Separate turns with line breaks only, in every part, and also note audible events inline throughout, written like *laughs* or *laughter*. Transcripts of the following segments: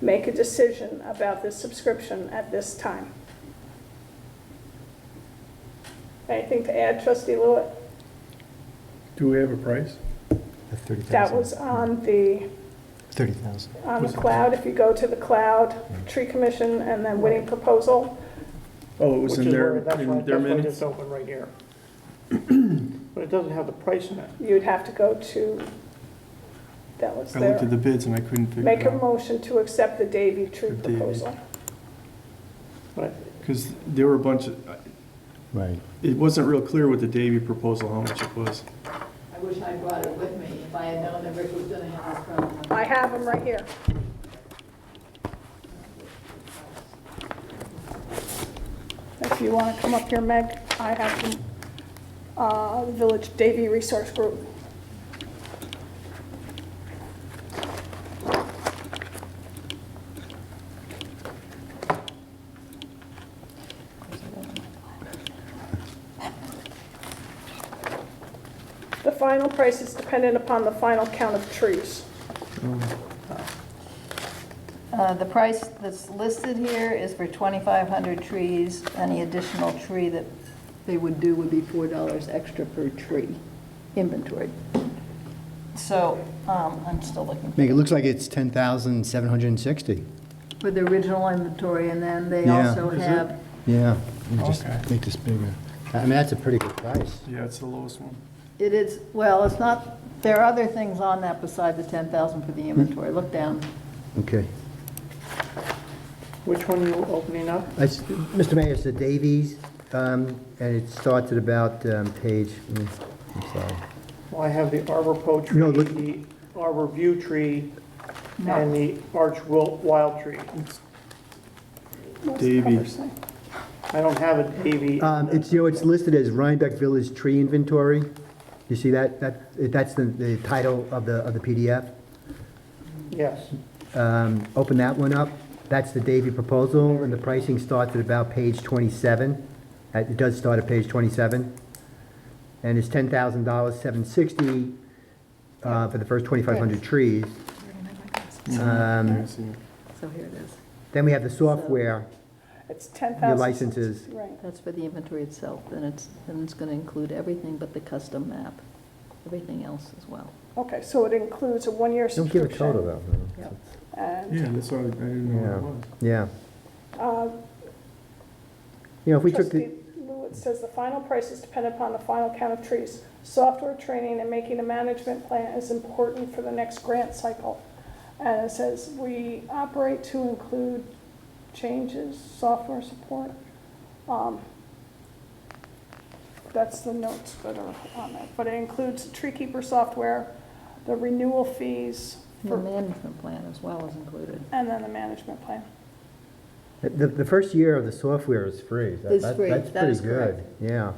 make a decision about this subscription at this time. Anything to add, trustee Lewitt?
Do we have a price?
At thirty thousand.
That was um, on the,
Thirty thousand.
on the cloud, if you go to the cloud, tree commission, and then winning proposal,
Oh, it
Which
was
is
in their,
where- that's why-
in their
that's why
minutes?
It's open right here. *clears throat* But it doesn't have the price in it.
you'd have to go to, that was
I looked at
there.
the bids and I couldn't figure
Make
it
a
out.
motion to accept the Davy tree
The Davy.
proposal.
But
Because there were a bunch of,
Right.
it wasn't real clear with the Davy proposal how much it was.
I wish I brought it with me. If I had known that Rick was gonna have this problem.
I have them right here. If you want to come up here, Meg, I have them, uh, Village Davy Resource Group. The final price is dependent upon the final count of trees.
Uh, The price that's listed here is for 2,500 trees. Any additional tree that they would do would be $4 extra per tree inventory. So, um, I'm still looking
Make, it looks like it's ten thousand seven hundred and sixty.
for the original inventory, and then they
Yeah.
also
Is it?
have,
Yeah. Let me just
Okay.
make this bigger. I mean, that's a pretty good price.
Yeah, it's the lowest one.
it is, well, it's not, there are other things on that beside the 10,000 for the inventory. Look down.
Okay.
which one you opening up?
That's, Mr. Mayor, it's the Davies, um, and it starts at about, um, page, mm, I'm sorry.
Well, I have the arbor poe
No,
tree,
look-
the arbor view tree,
No.
and the arch wil- wild tree.
What's the
Davy.
cover say?
I don't have a Davy.
Um, it's, you know, it's listed as Rhinebeck Village Tree Inventory. You see that, that, that's the, the title of the, of the PDF.
Yes,
Um, open that one up. That's the Davy proposal, and the pricing starts at about page twenty-seven. Uh, It does start at page twenty-seven. And it's ten thousand dollars, seven sixty, uh, for the first twenty-five hundred trees. Um,
I see.
So here it is.
then we have the software,
It's 10,000.
your licenses.
Right.
That's for the inventory itself, and it's, and it's gonna include everything but the custom map, everything else as well.
Okay, so it includes a one-year
Don't give
subscription.
a total though.
Yep.
And
Yeah, that's why I didn't know what it was.
Yeah.
uh,
You know, if we took
trustee
the,
Lewitt says the final price is dependent upon the final count of trees. Software training and making a management plan is important for the next grant cycle. And it says we operate to include changes, software support. Um, That's the notes that are on that, but it includes tree keeper software, the renewal fees,
The
for-
management plan as well is included.
and then the management plan.
the, the first year of the software is free. That-
It's
that-
free.
That's
That
pretty
is correct.
good, yeah.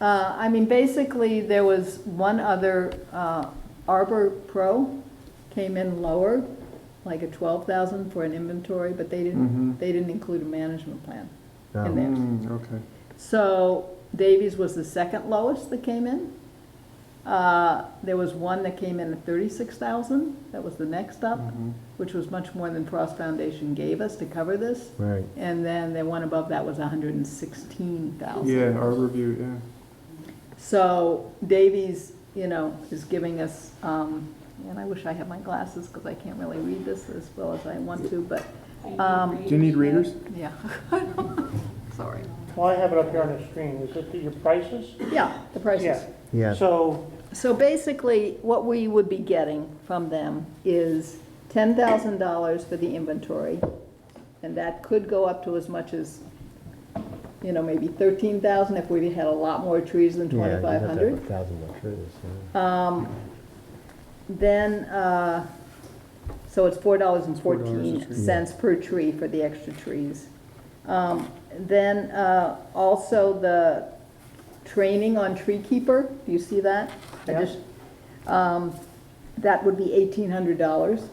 Uh, I mean, basically, there was one other, uh, Arbor Pro came in lower, like a twelve thousand for an inventory, but they didn't,
Mhm.
they didn't include a management plan in
Um,
there.
Mm, okay.
So Davies was the second lowest that came in. Uh, There was one that came in at 36,000, that was the next up,
Mm-hmm.
which was much more than Frost Foundation gave us to cover this.
Right.
And then the one above that was 116,000.
Yeah, our review, yeah.
So Davies, you know, is giving us, um, and I wish I had my glasses because I can't really read this as well as I want to, but, um,
Do you need readers?
yeah. *laughs* Sorry.
well, I have it up here on the screen, is it your prices?
Yeah, the prices.
Yeah.
Yeah.
So,
So basically, what we would be getting from them is ten thousand dollars for the inventory, and that could go up to as much as, you know, maybe thirteen thousand if we had a lot more trees than
Yeah, you'd have to have
twenty-five
a
hundred.
thousand more trees, yeah.
Um, Then, uh, so it's four dollars and fourteen
yeah.
cents per tree for the extra trees. Um, Then, uh, also the training on tree keeper, do you see that? I
Yeah.
just- um, That would be eighteen hundred dollars.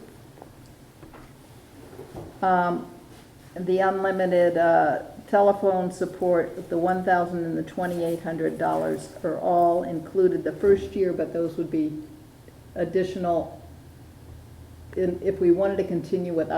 Um, The unlimited uh, telephone support, the one thousand and the twenty-eight hundred dollars are all included the first year, but those would be additional. And if we wanted to continue with